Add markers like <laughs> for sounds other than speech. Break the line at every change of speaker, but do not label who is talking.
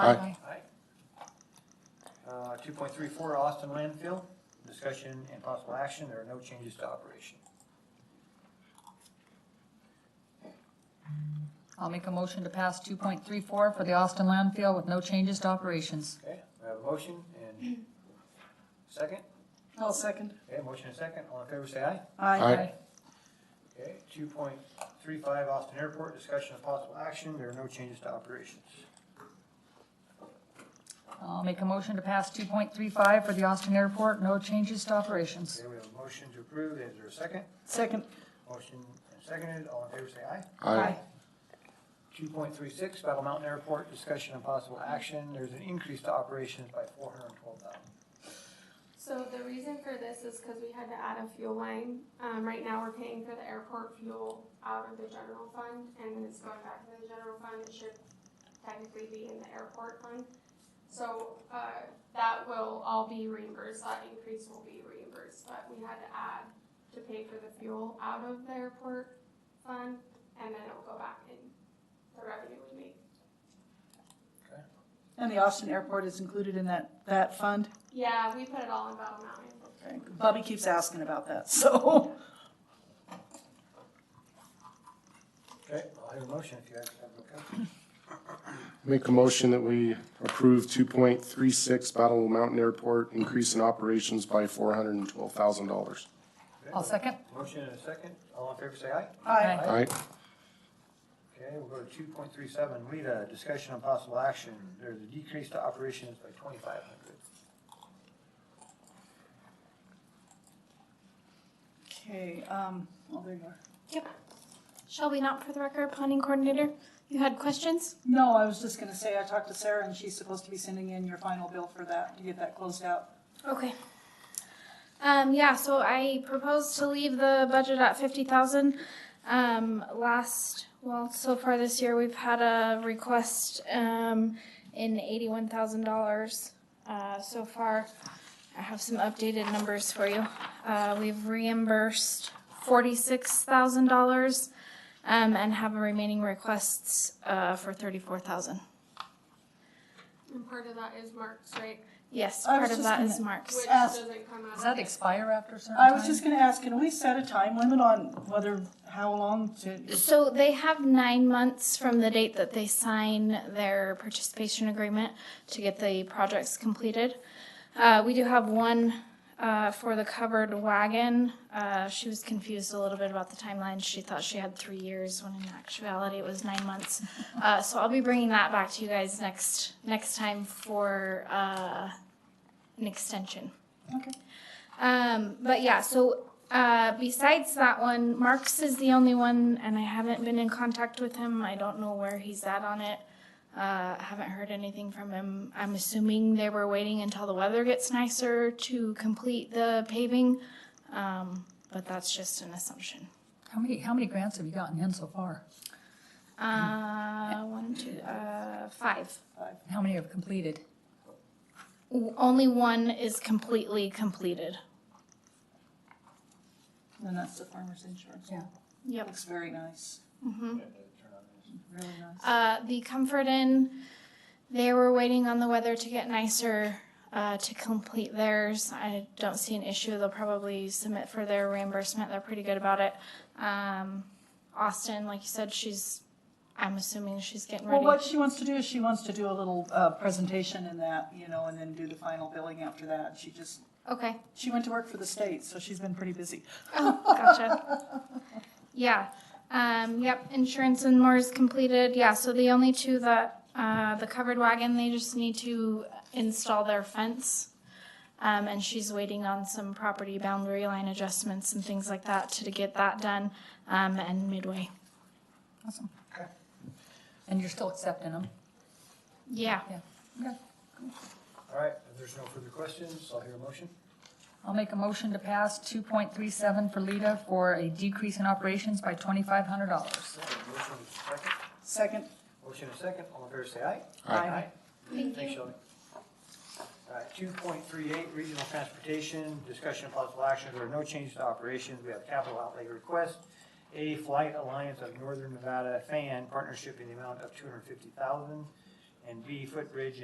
Aye.
Uh, two point three four, Austin landfill, discussion and possible action, there are no changes to operation.
I'll make a motion to pass 2.34 for the Austin landfill with no changes to operations.
Okay, we have a motion
<clears throat>
and second,
I'll second.
okay, motion and second, all in favor say aye.
Aye.
Aye.
Okay, two point three five, Austin Airport, discussion and possible action, there are no changes to operations.
I'll make a motion to pass 2.35 for the Austin airport, no changes to operations.
Okay, we have a motion to approve, is there a second?
Second.
Motion and seconded, all in favor say aye.
Aye.
Two point three six, Battle Mountain Airport, discussion and possible action, there's an increase to operations by four hundred and twelve thousand.
So the reason for this is because we had to add a fuel line. Um, right now, we're paying for the airport fuel out of the general fund, and it's going back to the general fund. It should technically be in the airport fund. So, uh, that will all be reimbursed. That increase will be reimbursed, but we had to add to pay for the fuel out of the airport fund, and then it will go back in the revenue we make.
And the Austin Airport is included in that, that fund?
Yeah, we put it all in Battle Mountain.
Bobby keeps asking about that, <laughs> so.
Okay, I'll have a motion if you guys have a copy.
Make a motion that we approve two point three six Battle Mountain Airport, increase in operations by four hundred and twelve thousand dollars.
I'll second.
Motion and a second, all in favor say aye.
Aye.
Aye.
Okay, we'll go to two point three seven, WIDA, discussion on possible action, there's a decrease to operations by twenty-five hundred.
Okay, um, oh, there you are.
Shelby, not for the record, planning coordinator. You had questions?
No, I was just gonna say, I talked to Sarah and she's supposed to be sending in your final bill for that, to get that closed out.
Okay. Um, yeah, so I proposed to leave the budget at fifty thousand. Um, last, well, so far this year, we've had a request, um, in eighty-one thousand dollars, uh, so far. I have some updated numbers for you. Uh, we've reimbursed forty-six thousand dollars, um, and have remaining requests, uh, for thirty-four thousand.
And part of that is Mark's, right?
Yes,
I was
part of
just
that
gonna-
is Mark's.
Which
Ask-
doesn't come out.
Does that expire after a certain time?
I was just gonna ask, can we set a time limit on whether, how long to,
So they have nine months from the date that they sign their participation agreement to get the projects completed. Uh, we do have one, uh, for the covered wagon. Uh, she was confused a little bit about the timeline. She thought she had three years when in actuality it was nine months. Uh, so I'll be bringing that back to you guys next, next time for, uh, an extension.
Okay.
Um, but yeah, so uh, besides that one, Marks is the only one, and I haven't been in contact with him. I don't know where he's at on it. Uh, haven't heard anything from him. I'm assuming they were waiting until the weather gets nicer to complete the paving, um, but that's just an assumption.
How many, how many grants have you gotten in so far?
Uh, one, two, uh, five.
How many have completed?
O- Only one is completely completed.
and that's the farmer's insurance.
Yeah.
Yep.
Looks very nice,
Mm-hmm.
Hmm.
really nice.
Uh, the Comfort Inn, they were waiting on the weather to get nicer uh, to complete theirs. I don't see an issue. They'll probably submit for their reimbursement. They're pretty good about it. Um, Austin, like you said, she's, I'm assuming she's getting
Well,
ready.
what she wants to do is she wants to do a little, uh, presentation in that, you know, and then do the final billing after that. She just
okay.
She went to work for the state, so she's been pretty busy.
Oh, gotcha. yeah. Um, yep. Insurance and more is completed. Yeah. So the only two that uh, the covered wagon, they just need to install their fence. Um, and she's waiting on some property boundary line adjustments and things like that to, get that done. Um, and midway.
Awesome.
Okay.
And you're still accepting them?
Yeah.
All right, if there's no further questions, I'll hear a motion.
I'll make a motion to pass 2.37 for Lita for a decrease in operations by $2,500.
Okay, Motion and second,
Second,
motion and second, all in favor say aye.
Aye.
Thank
Thanks, Shelby. All right, two point three eight, regional transportation, discussion of possible action, there are no changes to operations, we have capital outlay request. A Flight Alliance of Northern Nevada Fan Partnership in the amount of two hundred fifty thousand and B, footbridge